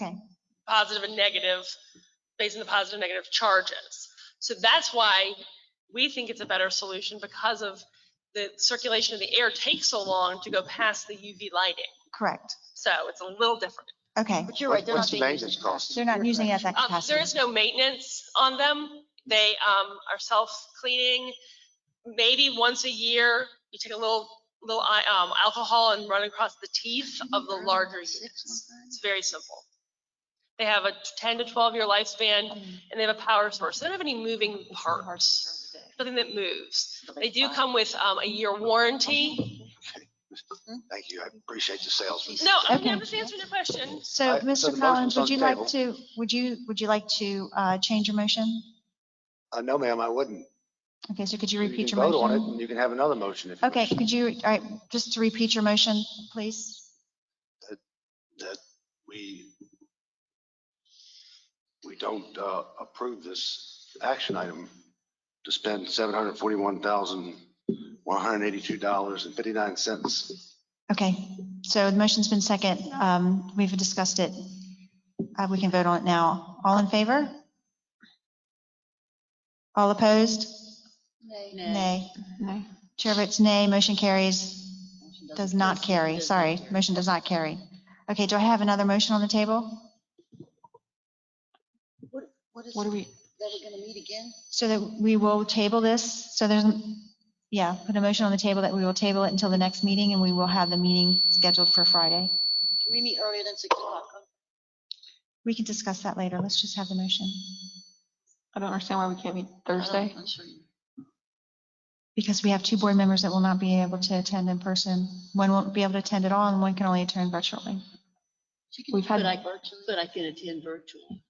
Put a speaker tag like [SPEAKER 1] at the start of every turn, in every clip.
[SPEAKER 1] Okay.
[SPEAKER 2] positive and negative, based on the positive and negative charges. So that's why we think it's a better solution because of the circulation of the air takes so long to go past the UV lighting.
[SPEAKER 1] Correct.
[SPEAKER 2] So it's a little different.
[SPEAKER 1] Okay.
[SPEAKER 3] But you're right, they're not
[SPEAKER 4] What's the
[SPEAKER 3] being used.
[SPEAKER 4] maintenance cost?
[SPEAKER 1] They're not using it at that
[SPEAKER 2] Um, There is
[SPEAKER 1] capacity.
[SPEAKER 2] no maintenance on them. They um, are self-cleaning. Maybe once a year, you take a little, little i- um, alcohol and run across the teeth of the larger
[SPEAKER 1] Mm-hmm.
[SPEAKER 2] units. It's very simple. They have a 10 to 12-year lifespan,
[SPEAKER 1] Mm-hmm.
[SPEAKER 2] and they have a power source. They don't have any moving parts, nothing that moves. They do come with um, a year warranty.
[SPEAKER 4] Thank you. I appreciate the salesman.
[SPEAKER 2] No, I'm
[SPEAKER 1] Okay.
[SPEAKER 2] just answering your question.
[SPEAKER 1] So,
[SPEAKER 4] I- so
[SPEAKER 1] Mr.
[SPEAKER 4] the motion's
[SPEAKER 1] Collins,
[SPEAKER 4] on
[SPEAKER 1] would you
[SPEAKER 4] the
[SPEAKER 1] like
[SPEAKER 4] table.
[SPEAKER 1] to, would you, would you like to uh, change your motion?
[SPEAKER 4] Uh, no, ma'am, I wouldn't.
[SPEAKER 1] Okay, so could you
[SPEAKER 4] You
[SPEAKER 1] repeat
[SPEAKER 4] can
[SPEAKER 1] your
[SPEAKER 4] vote on it
[SPEAKER 1] motion?
[SPEAKER 4] and you can have another motion if you
[SPEAKER 1] Okay,
[SPEAKER 4] wish.
[SPEAKER 1] could you, all right, just to repeat your motion, please?
[SPEAKER 4] That we, we don't, uh, approve this action item to spend seven hundred forty-one thousand, one hundred eighty-two dollars and fifty-nine cents.
[SPEAKER 1] Okay, so the motion's been second. Um, We've discussed it. Uh, We can vote on it now. All in favor? All opposed? Nay.
[SPEAKER 5] Nay.
[SPEAKER 1] Chair votes nay. Motion carries, does not carry. Sorry,
[SPEAKER 3] carry.
[SPEAKER 1] motion does not carry. Okay, do I have another motion on the table?
[SPEAKER 3] What is,
[SPEAKER 5] What
[SPEAKER 3] that
[SPEAKER 5] do we,
[SPEAKER 3] we're gonna meet again?
[SPEAKER 1] So that we will table this, so there's, yeah, put a motion on the table that we will table it until the next meeting, and we will have the meeting scheduled for Friday.
[SPEAKER 3] Can we meet earlier than six o'clock?
[SPEAKER 1] We can discuss that later, let's just have the motion,
[SPEAKER 5] I don't understand why we can't meet
[SPEAKER 3] I don't-
[SPEAKER 5] Thursday.
[SPEAKER 3] I'm sure you-
[SPEAKER 1] because we have two board members that will not be able to attend in person. One won't be able to attend at all, and one can only attend virtually.
[SPEAKER 3] She can,
[SPEAKER 5] We've had-
[SPEAKER 3] but I, but I can attend virtually.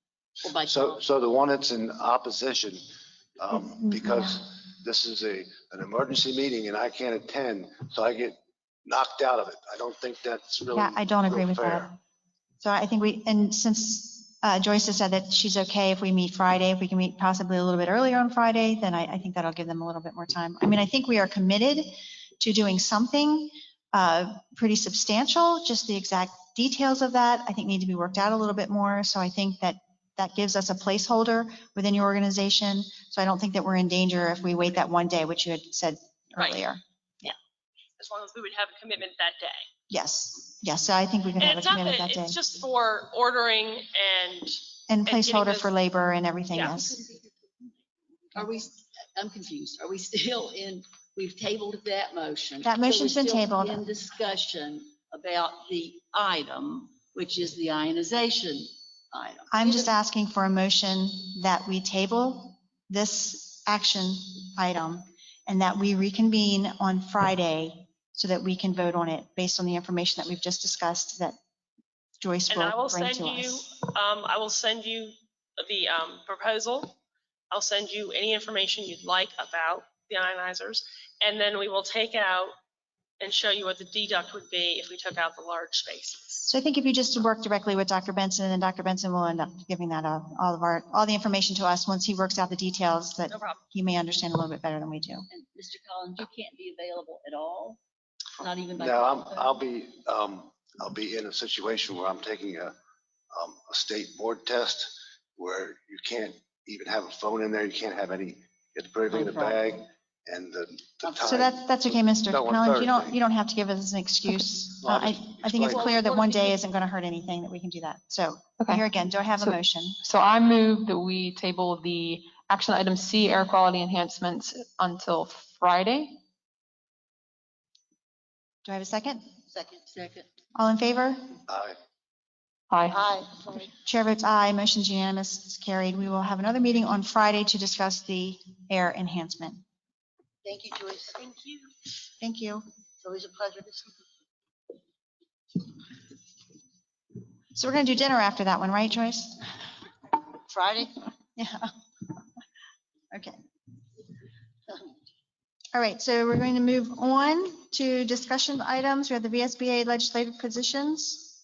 [SPEAKER 3] Or by
[SPEAKER 4] So,
[SPEAKER 3] phone.
[SPEAKER 4] so the one that's in opposition, um, because this is a, an emergency meeting and I can't attend, so I get knocked out of it. I don't think that's really.
[SPEAKER 1] Yeah, I don't agree
[SPEAKER 4] real
[SPEAKER 1] with that.
[SPEAKER 4] fair.
[SPEAKER 1] So I think we, and since uh, Joyce has said that she's okay if we meet Friday, if we can meet possibly a little bit earlier on Friday, then I, I think that'll give them a little bit more time. I mean, I think we are committed to doing something uh, pretty substantial, just the exact details of that, I think need to be worked out a little bit more. So I think that that gives us a placeholder within your organization. So I don't think that we're in danger if we wait that one day, which you had said
[SPEAKER 2] Right.
[SPEAKER 1] earlier.
[SPEAKER 2] As long as we would have a commitment that day.
[SPEAKER 1] Yes, yes, so I think we can
[SPEAKER 2] And
[SPEAKER 1] have a
[SPEAKER 2] it's not
[SPEAKER 1] commitment
[SPEAKER 2] that,
[SPEAKER 1] that day.
[SPEAKER 2] it's just for ordering and
[SPEAKER 1] And
[SPEAKER 2] getting
[SPEAKER 1] placeholder
[SPEAKER 2] those-
[SPEAKER 1] for labor and everything
[SPEAKER 2] Yeah.
[SPEAKER 1] else.
[SPEAKER 3] Are we, I'm confused. Are we still in, we've tabled that motion?
[SPEAKER 1] That
[SPEAKER 3] So we're
[SPEAKER 1] motion's been
[SPEAKER 3] still
[SPEAKER 1] tabled.
[SPEAKER 3] In discussion about the item, which is the ionization item.
[SPEAKER 1] I'm just asking for a motion that we table this action item and that we reconvene on Friday so that we can vote on it based on the information that we've just discussed that Joyce
[SPEAKER 2] And I
[SPEAKER 1] will
[SPEAKER 2] will
[SPEAKER 1] bring
[SPEAKER 2] send
[SPEAKER 1] to
[SPEAKER 2] you,
[SPEAKER 1] us.
[SPEAKER 2] um, I will send you the, um, proposal. I'll send you any information you'd like about the ionizers. And then we will take out and show you what the deduct would be if we took out the large spaces.
[SPEAKER 1] So I think if you just work directly with Dr. Benson, then Dr. Benson will end up giving that up, all of our, all the information to us once he works out the details that
[SPEAKER 2] No problem.
[SPEAKER 1] he may understand a little bit better than we do.
[SPEAKER 3] And Mr. Collins, you can't be available at all, not even by.
[SPEAKER 4] No, I'm,
[SPEAKER 3] telephone?
[SPEAKER 4] I'll be, um, I'll be in a situation where I'm taking a, um, a state board test where you can't even have a phone in there. You can't have any, you have to put everything in a bag and the, the
[SPEAKER 3] Okay.
[SPEAKER 1] So
[SPEAKER 4] time.
[SPEAKER 1] that's, that's okay, Mr.
[SPEAKER 4] No, on
[SPEAKER 1] Collins, you don't,
[SPEAKER 4] Thursday.
[SPEAKER 1] you don't have to give us an excuse.
[SPEAKER 4] Well,
[SPEAKER 1] Uh,
[SPEAKER 4] I'll
[SPEAKER 1] I,
[SPEAKER 4] just
[SPEAKER 1] I think it's
[SPEAKER 4] explain.
[SPEAKER 1] clear that one day isn't going to hurt anything, that we can do that. So
[SPEAKER 5] Okay,
[SPEAKER 1] here again, do I have a
[SPEAKER 5] So-
[SPEAKER 1] motion?
[SPEAKER 5] so I move that we table the action item C, air quality enhancements until Friday.
[SPEAKER 1] Do I have a second?
[SPEAKER 3] Second, second.
[SPEAKER 1] All in favor?
[SPEAKER 4] I-
[SPEAKER 5] Aye.
[SPEAKER 3] Aye. sorry.
[SPEAKER 1] Chair votes aye, motion's unanimous, it's carried. We will have another meeting on Friday to discuss the air enhancement.
[SPEAKER 3] Thank you, Joyce. Thank you.
[SPEAKER 1] Thank you.
[SPEAKER 3] It's always a pleasure to see you.
[SPEAKER 1] So we're going to do dinner after that one, right, Joyce?
[SPEAKER 3] Friday?
[SPEAKER 1] Yeah. Okay. All right, so we're going to move on to discussion items. We have the VSBA legislative positions.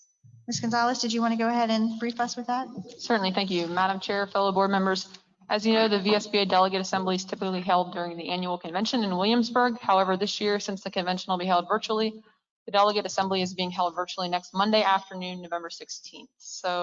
[SPEAKER 1] Ms. Gonzalez, did you want to go ahead and brief us with that?
[SPEAKER 5] Certainly, thank you. Madam Chair, fellow board members, as you know, the VSBA Delegate Assembly is typically held during the annual convention in Williamsburg. However, this year, since the convention will be held virtually, the Delegate Assembly is being held virtually next Monday afternoon, November 16th. So